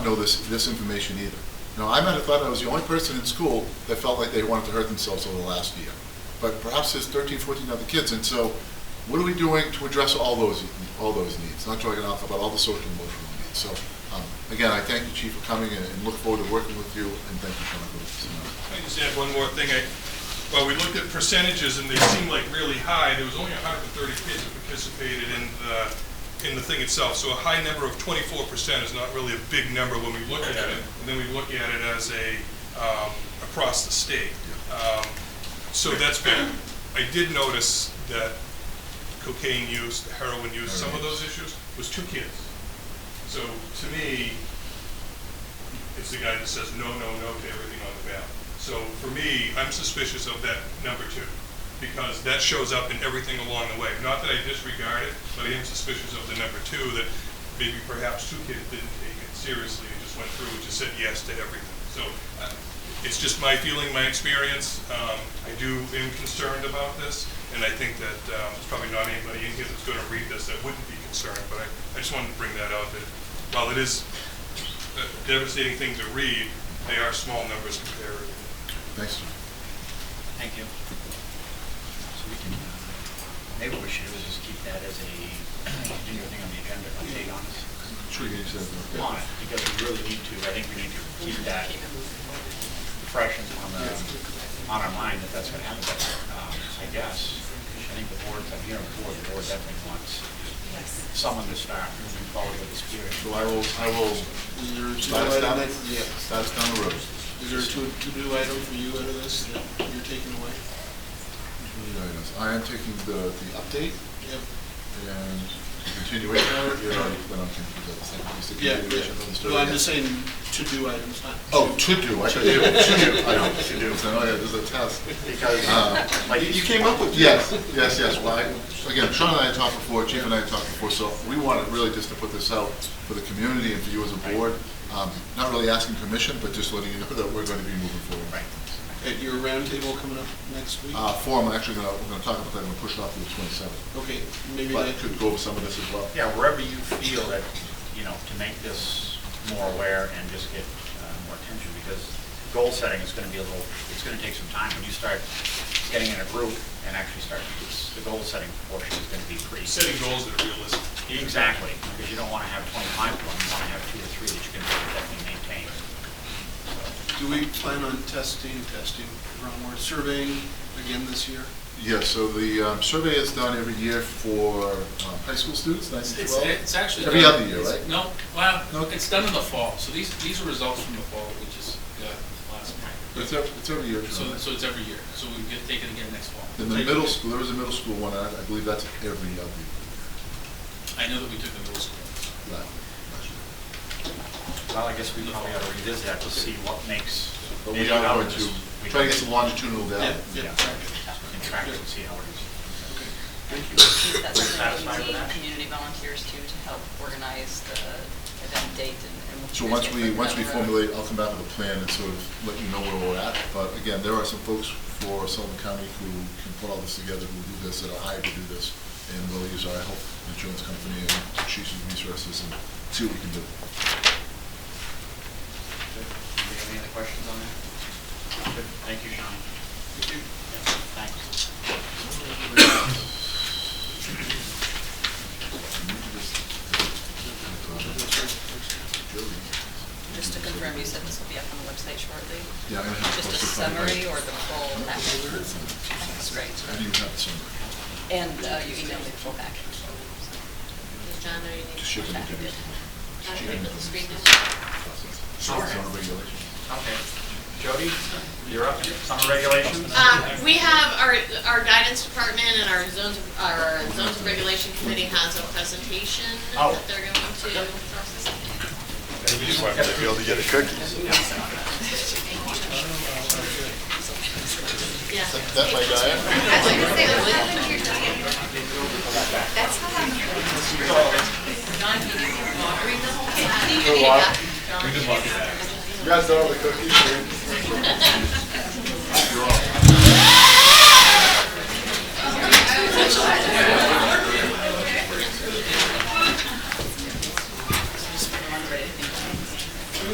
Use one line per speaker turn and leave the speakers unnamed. know this, this information either. Now, I might have thought I was the only person in school that felt like they wanted to hurt themselves over the last year. But perhaps there's 13, 14 other kids, and so what are we doing to address all those, all those needs? Not talking enough about all the social and emotional needs. So, um, again, I thank you, Chief, for coming and and look forward to working with you, and thank you for uh, coming with us tonight.
Can I just add one more thing? I, well, we looked at percentages and they seemed like really high. There was only hundred and thirty kids that participated in the, in the thing itself. So a high number of twenty-four percent is not really a big number when we look at it. And then we look at it as a, um, across the state. Um, So that's been, I did notice that cocaine use, heroin use, some of those issues was two kids. So to me, it's the guy that says no, no, no to everything on the ballot. So for me, I'm suspicious of that number two, because that shows up in everything along the way. Not that I disregard it, but I am suspicious of the number two, that maybe perhaps two kids didn't take it seriously and just went through and just said yes to everything. So uh, it's just my feeling, my experience. Um, I do am concerned about this, and I think that um, there's probably not anybody in here that's going to read this that wouldn't be concerned, but I, I just wanted to bring that out, that while it is a devastating thing to read, they are small numbers compared.
Thanks, John.
Thank you. So we can, uh, maybe what we should do is just keep that as a continuing thing on the agenda, update on it.
Sure, you said that.
On it, because we really need to, I think we need to keep that fresh and on the, on our mind that that's gonna happen. But, um, I guess, I think the board, I'm hearing the board, the board definitely wants
Yes.
someone to start moving forward with this period.
So I will, I will
Is there a
start us
to-do
down,
item, that- yeah.
start us down the road.
is there a to- to-do item for you out of this that you're taking away?
I am taking the, the update
Yep.
and continuation of it, you already went on to do that, second, just the
Yeah,
continuation of the
yeah.
story.
Well, I'm just saying to-do items, not.
Oh, to do, I should, to do, I know,
To
to
do.
do, so, oh yeah, there's a test.
Because,
Uh,
like.
You came up with.
Yes, yes, yes, well, I, again, Sean and I had talked before, Chief and I had talked before, so we wanted really just to put this out for the community and for you as a board, um, not really asking permission, but just letting you know that we're gonna be moving forward.
Right.
At your roundtable coming up next week?
Uh, forum, I'm actually gonna, we're gonna talk about that, and push it off to the twenty-seventh,
Okay, maybe
but I
that,
could go over some of this as well.
Yeah, wherever you feel that, you know, to make this more aware and just get uh, more attention, because goal setting is going to be a little, it's going to take some time. When you start getting in a group and actually start, it's- the goal setting portion is going to be pretty.
Setting goals that are realistic.
Exactly, because you don't want to have 25 of them, you want to have two or three that you can definitely maintain.
do we plan on testing, testing, wrong word, surveying again this year?
Yeah, so the um, survey is done every year for um, high school students, nine to
It's,
twelve.
it's actually.
Every
done-
other year,
it's-
right?
No, well,
No.
it's done in the fall, so these, these are results from the fall, we just got last month.
It's every, it's every year.
So, so it's every year, so we get, take it again next fall.
In the middle school, there is a middle school one, I I believe that's every other year.
I know that we took the middle school.
last- last year.
Well, I guess we probably ought to revisit that to see what makes.
But we
maybe
are
how
going
this-
to
we
try to get
can-
some longitudinal data.
Yeah,
Yeah, and track it and see how it is. Thank you.
That's something
Satisfied
that we
with
need
that?
community volunteers too, to help organize the event date and. and what
So
you guys
once
get
we,
for
once we
the road.
formulate, I'll come back with a plan and sort of let you know where we're at. But again, there are some folks for Sullivan County who can put all this together, who do this, that are hired to do this. And we'll use our health insurance company and Chiefs of Resources and see what we can do.
Anybody have any other questions on that? Good. Thank you, Sean. Yeah, Thanks.
Just to confirm, you said this will be up on the website shortly?
Yeah, I'm gonna have to
Just a
post it probably
summary
by-
or the full package? That's great.
I do have the summary.
And uh, you emailed me the full package. so-
John, are you?
Just ship it to me.
How do you put the screen down?
Sure. It's on regulation.
Okay. Jody, you're up. Summer regulations?
Um, we have our, our guidance department and our zones, of- our zones of regulation committee has a presentation
Oh.
that they're going to. Yeah.
That's my diet.
John, can you read the whole thing?
You guys got all the cookies?